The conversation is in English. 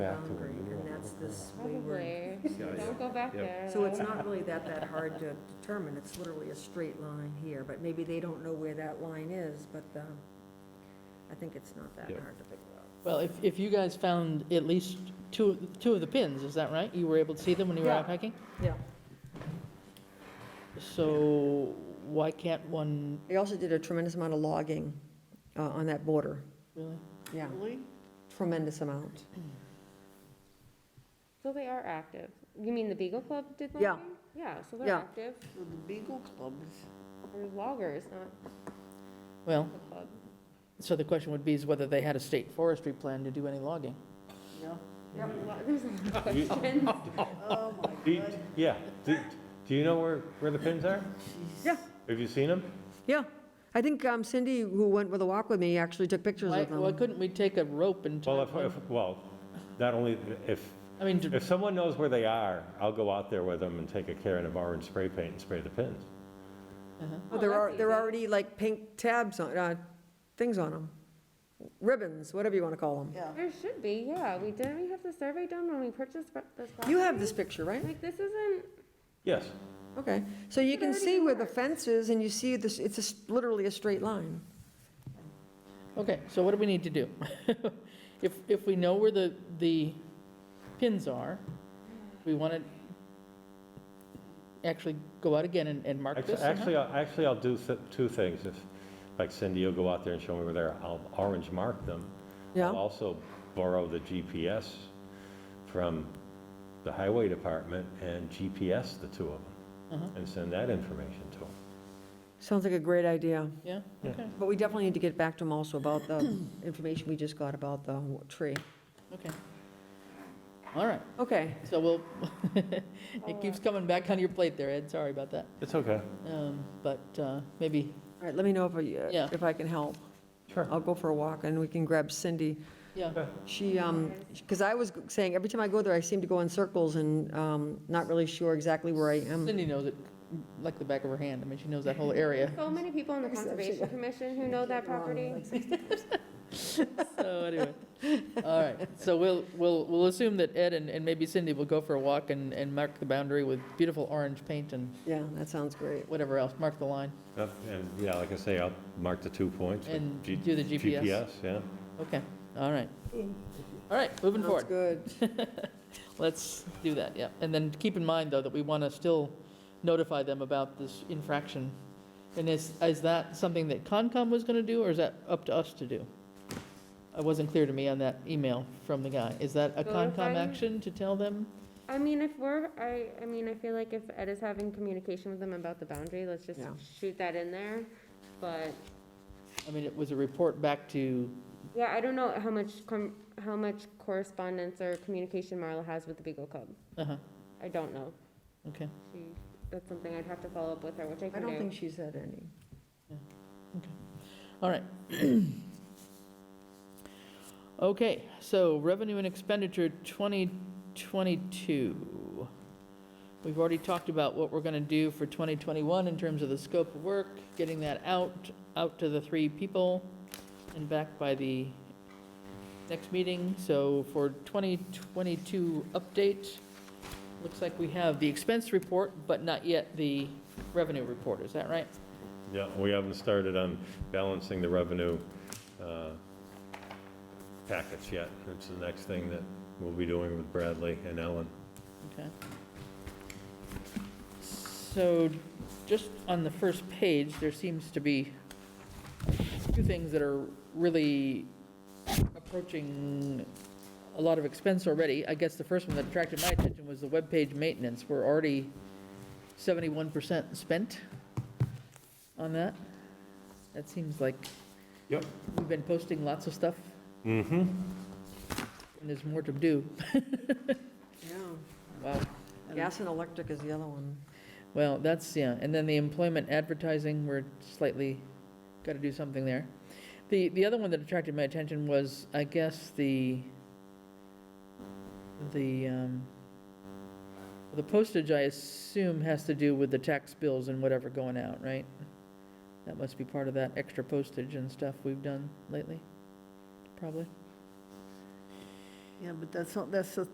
Back to boundary, and that's this wayward. Probably. Yeah, Don't yeah. go back Yep. there. So it's though. not really that, that hard to determine, it's literally a straight line here, but maybe they don't know where that line is, but, um, I think it's not that Yeah. hard to figure out. Well, if, if you guys found at least two, two of the pins, is that right? You were able to see them when you were out Yeah. hiking? Yeah. So why can't one, They also did a tremendous amount of logging, uh, on that border, really? yeah, tremendous amount. So they are active. You mean the Beagle Club did logging? Yeah. Yeah, so they're Yeah. active. So the Beagle Clubs, They're loggers, not Well, the club. so the question would be is whether they had a state forestry plan to do any logging. yeah. There's a lot of questions. Oh, my Do you- God. Yeah, do, do you know where, where the pins are? Yeah. Have you seen them? Yeah, I think um, Cindy, who went with a walk with me, actually took pictures Why, of why them. couldn't we take a rope and, tie Well, if, one- if, well, not only, if, I mean, to- if someone knows where they are, I'll go out there with them and take a can of orange spray paint and spray the pins. Oh, There are, that's there are easy. already like pink tabs on, uh, things on them, ribbons, whatever you want to call them. Yeah, There should be, yeah. We, didn't we have the survey done when we purchased pro- this property? You have this picture, right? Like, this isn't, Yes, Okay, so you It can already see where the works. fence is, and you see this, it's a s- literally a straight line. okay, so what do we need to do? If, if we know where the, the pins are, we want to actually go out again and, and mark Actu- this somehow? actually, I'll- actually, I'll do th- two things. If, like Cindy, you'll go out there and show me where they are, I'll orange mark them. I'll Yeah, also borrow the GPS from the highway department and GPS the two of Uh-huh. them and send that information to them. sounds like a great idea. Yeah, Yeah. okay, But we definitely need to get back to them also about the information we just got about the w- tree. okay. All right, Okay, so we'll, it keeps coming back on your plate there, Ed, sorry about that. It's okay. Um, But uh, maybe, all right, let me know if I, Yeah. if I can help. Sure. I'll go for a walk, and we can grab Cindy. yeah, She, um, because I was saying, every time I go there, I seem to go in circles and, um, not really sure exactly where I am. Cindy knows it like the back of her hand, I mean, she knows that whole area. so many people on the Conservation Commission who Oh, know that property. So anyway, all right, so we'll, we'll, we'll assume that Ed and and maybe Cindy will go for a walk and, and mark the boundary with beautiful orange paint and Yeah, that sounds great. whatever else, mark the line, Uh, And, yeah, like I say, I'll mark the two points. with and G- do the GPS. GPS, yeah. Okay, all right. All right, moving Sounds forward. good. Let's do that, yeah. And then keep in mind, though, that we want to still notify them about this infraction. And is, is that something that Concom was going to do, or is that up to us to do? It wasn't clear to me on that email from the guy. Is that a Notify Concom them? action to tell them? I mean, if we're, I, I mean, I feel like if Ed is having communication with them about the boundary, let's just Yeah. shoot that in there. But, I mean, it was a report back to, yeah, I don't know how much, com- how much correspondence or communication Marla has with the Beagle Club. uh-huh, I don't know. okay, She- That's something I'd have to follow up with her, which I I can don't do. think she's had any. all right. Okay, so revenue and expenditure 2022. We've already talked about what we're going to do for 2021 in terms of the scope of work, getting that out, out to the three people, and back by the next meeting. So for 2022 update, looks like we have the expense report, but not yet the revenue report, is that right? Yeah, we haven't started on balancing the revenue uh, packets yet. It's the next thing that we'll be doing with Bradley and Ellen. Okay. So, just on the first page, there seems to be two things that are really approaching a lot of expense already. I guess the first one that attracted my attention was the webpage maintenance. We're already seventy-one percent spent on that. That seems like Yep. we've been posting lots of stuff, Mm-hmm. and there's more to do. Yeah. Wow. Gas and electric is the other one. Well, that's, yeah, and then the employment advertising, we're slightly, got to do something there. The, the other one that attracted my attention was, I guess, the, the, um, the postage, I assume, has to do with the tax bills and whatever going out, right? That must be part of that extra postage and stuff we've done lately, probably. Yeah, but that's, not- that's the